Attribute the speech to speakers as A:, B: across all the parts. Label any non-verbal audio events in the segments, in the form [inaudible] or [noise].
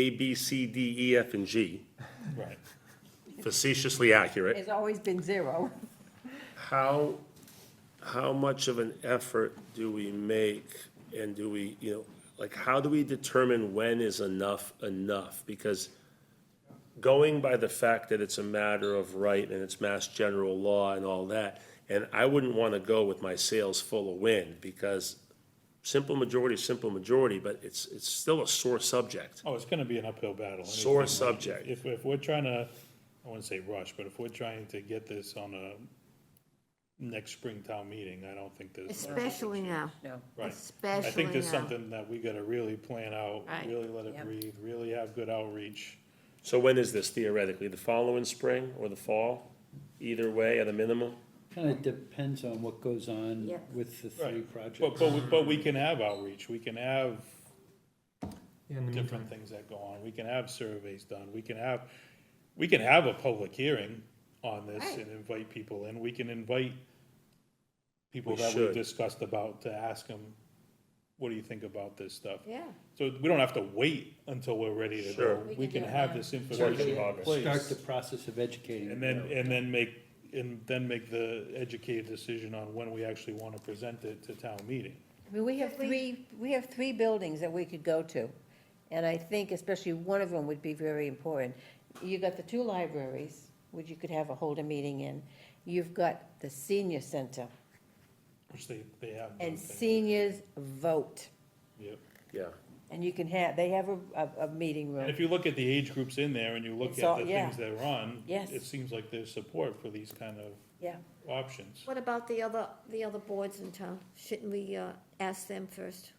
A: A, B, C, D, E, F, and G,
B: Right.
A: facetiously accurate.
C: It's always been zero.
A: How, how much of an effort do we make and do we, you know, like, how do we determine when is enough enough? Because going by the fact that it's a matter of right and it's mass general law and all that, and I wouldn't want to go with my sails full of wind because simple majority is simple majority, but it's, it's still a sore subject.
B: Oh, it's gonna be an uphill battle.
A: Sore
B: Anything like-
A: subject.
B: If, if we're trying to, I wouldn't say rush, but if we're trying to get this on a next spring town meeting, I don't think there's. much-
D: Especially now.
B: Right. I
D: Especially
B: think there's
D: now.
B: something that we gotta really plan out,
D: Right.
B: really let it breathe, really have good outreach.
A: So when is this theoretically? The following spring or the fall? Either way, at a minimum?
E: Kind of depends on what goes on
D: Yeah.
E: with the three
B: Right.
E: projects.
B: But, but, we- but we can have outreach, we can have
F: In the meantime,
B: different things that go on, we can have surveys done, we can have, we can have a public hearing on this
C: Right.
B: and invite people in, we can invite people
A: We
B: that
A: should.
B: we've discussed about to ask them, what do you think about this stuff?
C: Yeah.
B: So we don't have to wait until we're ready to
A: Sure.
B: go,
C: We
B: we can
C: can do it
B: have
C: now.
B: this
A: Start
B: information
A: in
B: in
A: August.
E: Start the
B: place,
E: process of educating.
B: and then, and then make, and then make the educated decision on when we actually wanna present it to town meeting.
C: I mean, we have three, we have three buildings that we could go to, and I think especially one of them would be very important. You got the two libraries, which you could have a hold a meeting in. You've got the senior center,
B: Which they, they have. done
C: and
B: things.
C: seniors vote.
B: Yep.
A: Yeah.
C: And you can have, they have a, a, a meeting
B: And
C: room.
B: if you look at the age groups in there and you look
C: It's
B: at
C: all-
B: the
C: yeah.
B: things they're on,
C: Yes.
B: it seems like there's support for these kind of
C: Yeah,
B: options.
D: What about the other, the other boards in town? Shouldn't we, uh, ask them [laughs] first?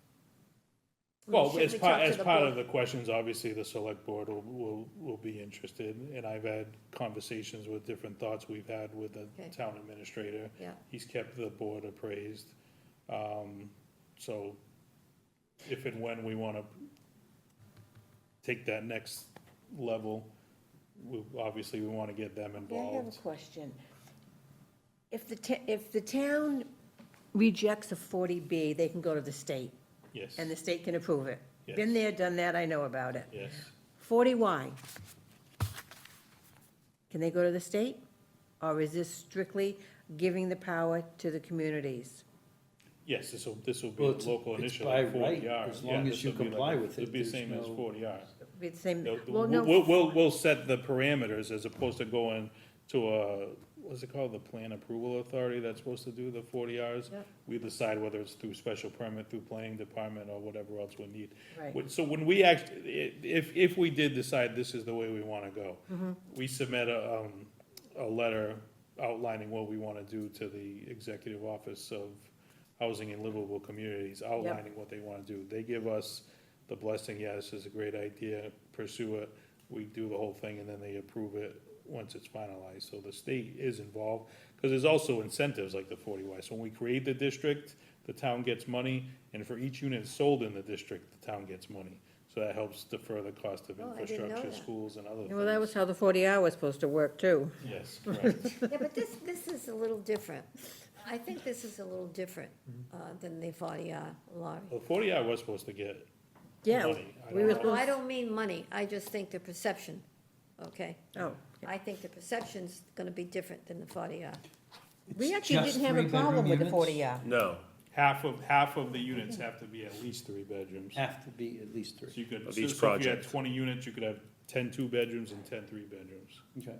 D: I mean,
B: Well,
D: shouldn't
B: as
D: we
B: part,
D: talk to
B: as
D: the
B: part of
D: board?
B: the questions, obviously, the select board will, will, will be interested. And I've had conversations with different thoughts we've had with the
D: Okay.
B: town administrator.
D: Yeah.
B: He's kept the board appraised. Um, so if and when we wanna take that next level, we, obviously, we wanna get them
C: I have a
B: involved.
C: question. If the, ta- if the town rejects a 40B, they can go to the state.
B: Yes,
C: and the state can approve it.
B: Yes.
C: Been there, done that, I know about it.
B: yes.
C: Forty Y. Can they go to the state? Or is this strictly giving the power to the communities?
B: Yes, this will, this will be a
E: Well, it's-
B: local
E: it's
B: initiative,
E: by
B: forty
E: right,
B: R.
E: as long as you comply with it,
B: It'll be the
E: there's
B: same as
E: no-
B: forty R.
C: Be the same, well,
B: We'll,
C: no,
B: we'll, we'll, we'll set the parameters as opposed to going to a, what's it called, the plan approval authority that's supposed to do the forty Rs? We decide whether it's through special permit, through planning department, or whatever else we need.
C: Right.
B: When- So when we act, i- if, if we did decide this is the way we wanna go,
C: Mm-hmm.
B: we submit a, um, a letter outlining what we wanna do to the executive office of housing and livable communities, outlining what they wanna do. They give us the blessing, yeah, this is a great idea, pursue it, we do the whole thing, and then they approve it once it's finalized, so the state is involved, because there's also incentives like the forty Y, so when we create the district, the town gets money, and for each unit sold in the district, the town gets money, so that helps defer the cost of
D: Oh, I didn't know
B: infrastructure,
D: that.
B: schools and other things.
C: well, that was how the forty hour was supposed to work too.
B: Yes, correct, [laughs]
D: Yeah, but this, this is a little different. I think this is a little different,
B: Mm-hmm.
D: uh, than the forty R law.
B: the forty I was supposed to get,
C: Yeah,
B: Money, I
C: we
B: don't
C: were
B: know.
D: No, I
C: supposed,
D: don't mean money, I just think the perception, okay?
C: oh,
D: I think the perception's gonna be different than the forty R.
C: we actually
E: just
C: didn't have a
E: three-bedroom
C: problem with the
E: units?
C: forty hour.
A: No,
B: half of, half of the units have to be at least three bedrooms.
E: Have to be at least
B: So
E: three.
B: you could,
A: Of
B: so
A: each
B: so if you had
A: project.
B: twenty units, you could have ten two-bedrooms and ten three-bedrooms.
E: Okay.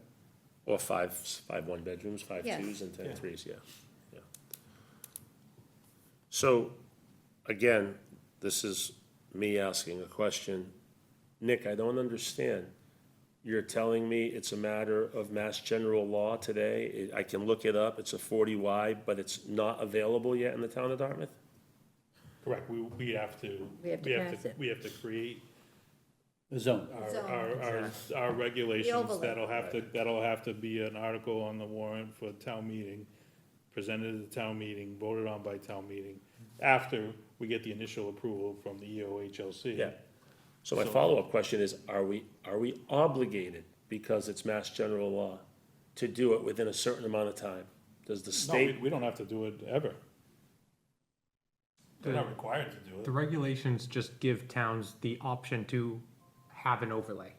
A: or five, five one-bedrooms, five
D: Yes.
A: twos, and ten
B: Yeah.
A: threes, yeah, yeah. So, again, this is me asking a question. Nick, I don't understand. You're telling me it's a matter of mass general law today? It- I can look it up, it's a forty Y, but it's not available yet in the town of Dartmouth?
B: Correct, we, we have to,
C: We have to
B: we have
C: pass
B: to,
C: it.
B: we have to create
E: A zone.
B: our,
D: Zone.
B: our, our, our regulations,
D: overlay.
B: that'll have to, that'll have to be an article on the warrant for town meeting, presented at the town meeting, voted on by town meeting, after we get the initial approval from the E EOHLC.
A: Yeah. So my follow-up question is, are we, are we obligated, because it's mass general law, to do it within a certain amount of time? Does the
B: No, we,
A: state,
B: we don't have to do it ever. They're not required to do it.
F: The regulations just give towns the option to have an overlay.